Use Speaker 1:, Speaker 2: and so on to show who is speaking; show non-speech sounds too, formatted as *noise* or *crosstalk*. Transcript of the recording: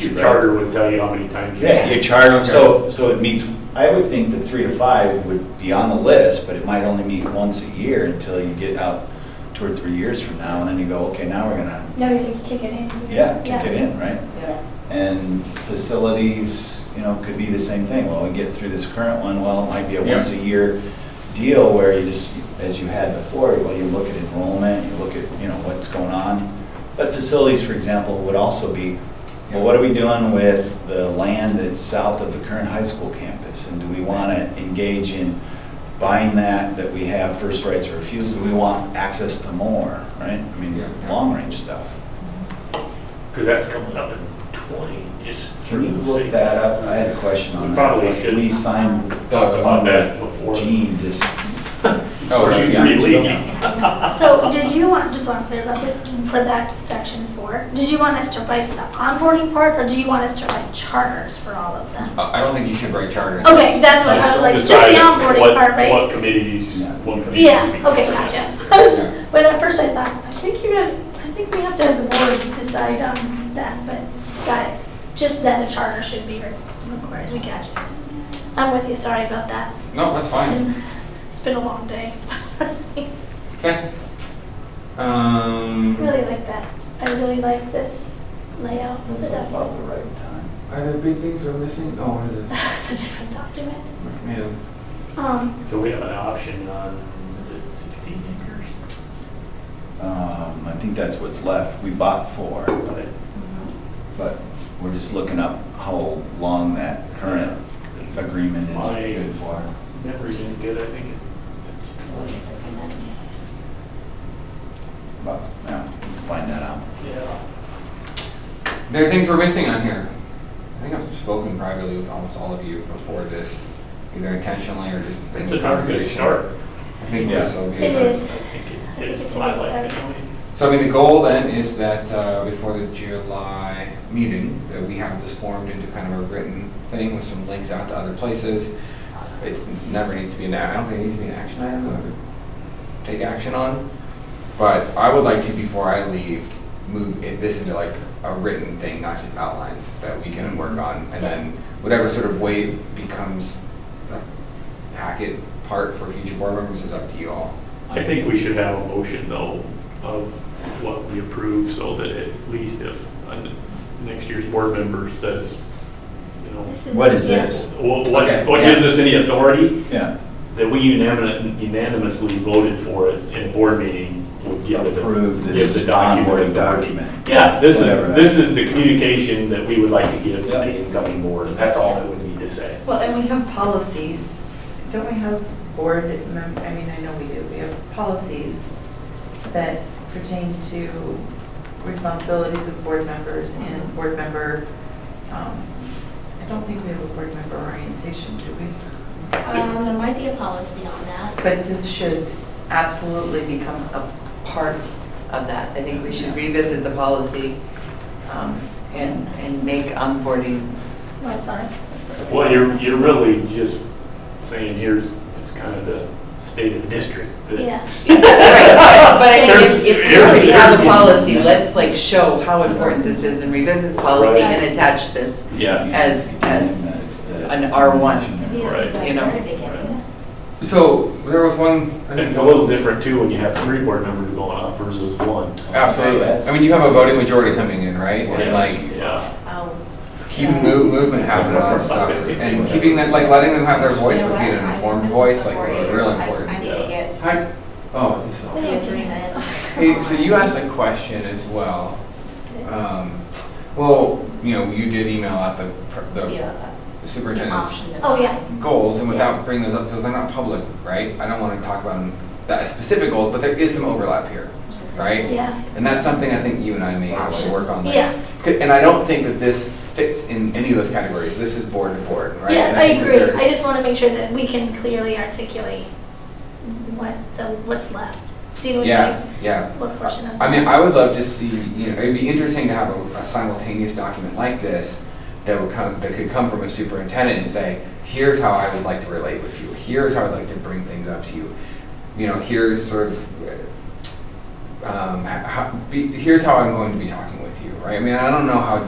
Speaker 1: Your charter would tell you how many times. you-
Speaker 2: Yeah.
Speaker 3: You charter them, so, so it meets,
Speaker 2: I would think that three to five would be on the list, but it might only meet once a year until you get out two or three years from now, and then you go, okay, now we're gonna,
Speaker 4: No, you should kick it in.
Speaker 2: yeah, kick it in, right?
Speaker 5: Yeah.
Speaker 2: And facilities, you know, could be the same thing. Well, we get through this current one, well, it might be a
Speaker 3: Yeah.
Speaker 2: once-a-year deal where you just, as you had before, well, you look at enrollment, you look at, you know, what's going on. But facilities, for example, would also be, well, what are we doing with the land that's south of the current high school campus? And do we want to engage in buying that, that we have first rights of refusal? Do we want access to more, right? I mean,
Speaker 3: Yeah, yeah.
Speaker 2: long-range stuff.
Speaker 1: Because that's coming up in twenty, is
Speaker 2: Can
Speaker 1: through
Speaker 2: you
Speaker 1: the
Speaker 2: look
Speaker 1: city.
Speaker 2: that up? I had a question on
Speaker 1: We
Speaker 2: that.
Speaker 1: probably
Speaker 2: Like,
Speaker 1: should
Speaker 2: We signed
Speaker 1: Talked
Speaker 2: the
Speaker 1: about
Speaker 2: one
Speaker 1: that
Speaker 2: that
Speaker 1: before.
Speaker 2: Gene just.
Speaker 3: Oh,
Speaker 1: For
Speaker 3: right,
Speaker 1: you
Speaker 3: yeah.
Speaker 1: three league.
Speaker 4: So did you want, just so I'm clear about this, for that section four, did you want us to write the onboarding part or do you want us to write charters for all of them?
Speaker 3: I I don't think you should write charter.
Speaker 4: Okay, that's what I was like, just the
Speaker 1: Decide
Speaker 4: onboarding
Speaker 1: what-
Speaker 4: part, right?
Speaker 1: What committees,
Speaker 2: Yeah.
Speaker 1: what committees.
Speaker 4: Yeah,
Speaker 1: we-
Speaker 4: okay, gotcha. I was, but at first I thought, I think you guys, I think we have to as a board decide on that, but got it. Just that a charter should be re- required, we got you. I'm with you, sorry about that.
Speaker 3: No, that's fine.
Speaker 4: It's been a long day. *laughs*
Speaker 3: Okay. Um,
Speaker 4: Really like that. I really like this layout. of the
Speaker 2: Looks like
Speaker 4: *laughs* document.
Speaker 2: about the right time.
Speaker 3: are there big things we're missing? Oh, what is it?
Speaker 4: It's a different document.
Speaker 3: Yeah.
Speaker 4: Um,
Speaker 1: So we have an option on, is it sixteen acres?
Speaker 2: Um, I think that's what's left. We bought four,
Speaker 1: But
Speaker 2: but we're just looking up how long that current agreement is
Speaker 1: My-
Speaker 2: good for.
Speaker 1: memory's any good, I think it's twenty.
Speaker 2: But, yeah, we can find that out.
Speaker 1: Yeah.
Speaker 3: There are things we're missing on here. I think I've spoken privately with almost all of you before this, either intentionally or just. in
Speaker 1: It's
Speaker 3: the
Speaker 1: a darn good
Speaker 3: conversation.
Speaker 1: start.
Speaker 3: I think
Speaker 2: Yeah.
Speaker 3: this will be.
Speaker 4: It
Speaker 3: a-
Speaker 4: is.
Speaker 1: I think
Speaker 4: I
Speaker 1: it
Speaker 4: think
Speaker 1: is
Speaker 4: it's a
Speaker 1: my
Speaker 4: good
Speaker 1: life
Speaker 4: start.
Speaker 1: anyway.
Speaker 3: So I mean, the goal then is that uh, before the July meeting, that we have this formed into kind of a written thing with some links out to other places. It's never needs to be an, I don't think it needs to be an action item that we take action on. But I would like to, before I leave, move it- this into like a written thing, not just outlines that we can work on. And then whatever sort of way becomes the packet part for future board members is up to you all.
Speaker 1: I think we should have a motion though of what we approve so that at least if uh, next year's board member says, you know,
Speaker 4: this
Speaker 2: What is
Speaker 4: yeah.
Speaker 2: this?
Speaker 1: wh- what,
Speaker 3: Okay,
Speaker 1: what
Speaker 3: yeah.
Speaker 1: gives us any authority
Speaker 2: Yeah,
Speaker 1: that we unanimous- unanimously voted for it in a board meeting would give it.
Speaker 2: Approve
Speaker 1: give
Speaker 2: this
Speaker 1: the document
Speaker 2: onboarding
Speaker 1: authority.
Speaker 2: document.
Speaker 1: Yeah, this is,
Speaker 2: Whatever that
Speaker 1: this
Speaker 2: is.
Speaker 1: is the communication that we would like to give to
Speaker 2: Yeah.
Speaker 1: the incoming board. That's all I would need to say.
Speaker 5: Well, and we have policies. Don't we have board mem, I mean, I know we do. We have policies that pertain to responsibilities of board members and board member, um, I don't think we have a board member orientation, do we?
Speaker 6: Um, there might be a policy on that.
Speaker 5: But this should absolutely become a part of that. I think we should revisit the policy um, and, and make onboarding
Speaker 4: Oh, sorry.
Speaker 1: Well, you're, you're really just saying here's, it's kind of the state of the district. that- *laughs*
Speaker 4: Yeah.
Speaker 5: Right, but- But I think if- if we
Speaker 1: There's-
Speaker 5: already have a
Speaker 1: there's-
Speaker 5: policy, let's like show how important this is and revisit the policy
Speaker 1: Right.
Speaker 5: and attach this,
Speaker 1: Yeah.
Speaker 5: As- as
Speaker 2: uh,
Speaker 5: an R1.
Speaker 4: Yeah,
Speaker 1: Right.
Speaker 6: uh,
Speaker 4: exactly.
Speaker 5: You know.
Speaker 4: Very beginning.
Speaker 3: So there was one. I
Speaker 1: And
Speaker 3: think
Speaker 1: it's a little different too when you have three board members going up versus one.
Speaker 3: Absolutely.
Speaker 2: That's-
Speaker 3: I mean, you have a voting majority coming in, right? And
Speaker 1: Yeah,
Speaker 3: like,
Speaker 1: Yeah.
Speaker 6: Oh,
Speaker 3: keeping move, movement happening on stuff, is- and keeping that, like, letting them have their voice, but being an informed voice, like, is real
Speaker 6: I
Speaker 3: important.
Speaker 6: need to get.
Speaker 3: Hi. Oh, this is
Speaker 4: We
Speaker 3: awesome.
Speaker 4: need three minutes.
Speaker 3: Hey, so you asked a question as well. Um, well, you know, you did email out the, pr- the
Speaker 6: Yeah, an
Speaker 3: superintendent's
Speaker 6: option.
Speaker 4: Oh, yeah.
Speaker 3: goals, and without bringing those up, because they're not public, right? I don't want to talk about them, that specific goals, but there is some overlap here, right?
Speaker 4: Yeah.
Speaker 3: And that's something I think you and I may have to work on.
Speaker 4: Yeah.
Speaker 3: C- And I don't think that this fits in any of those categories. This is board to board, right?
Speaker 4: Yeah,
Speaker 3: And
Speaker 4: I
Speaker 3: think that
Speaker 4: agree.
Speaker 3: there's-
Speaker 4: I just want to make sure that we can clearly articulate what the, what's left. Do you know what I
Speaker 3: Yeah,
Speaker 4: mean?
Speaker 3: yeah.
Speaker 4: What portion of?
Speaker 3: I mean, I would love to see, you know, it'd be interesting to have a- a simultaneous document like this that would come, that could come from a superintendent and say, here's how I would like to relate with you. Here's how I'd like to bring things up to you. You know, here's sort of, uh, um, h- how, be- here's how I'm going to be talking with you, right? I mean, I don't know how,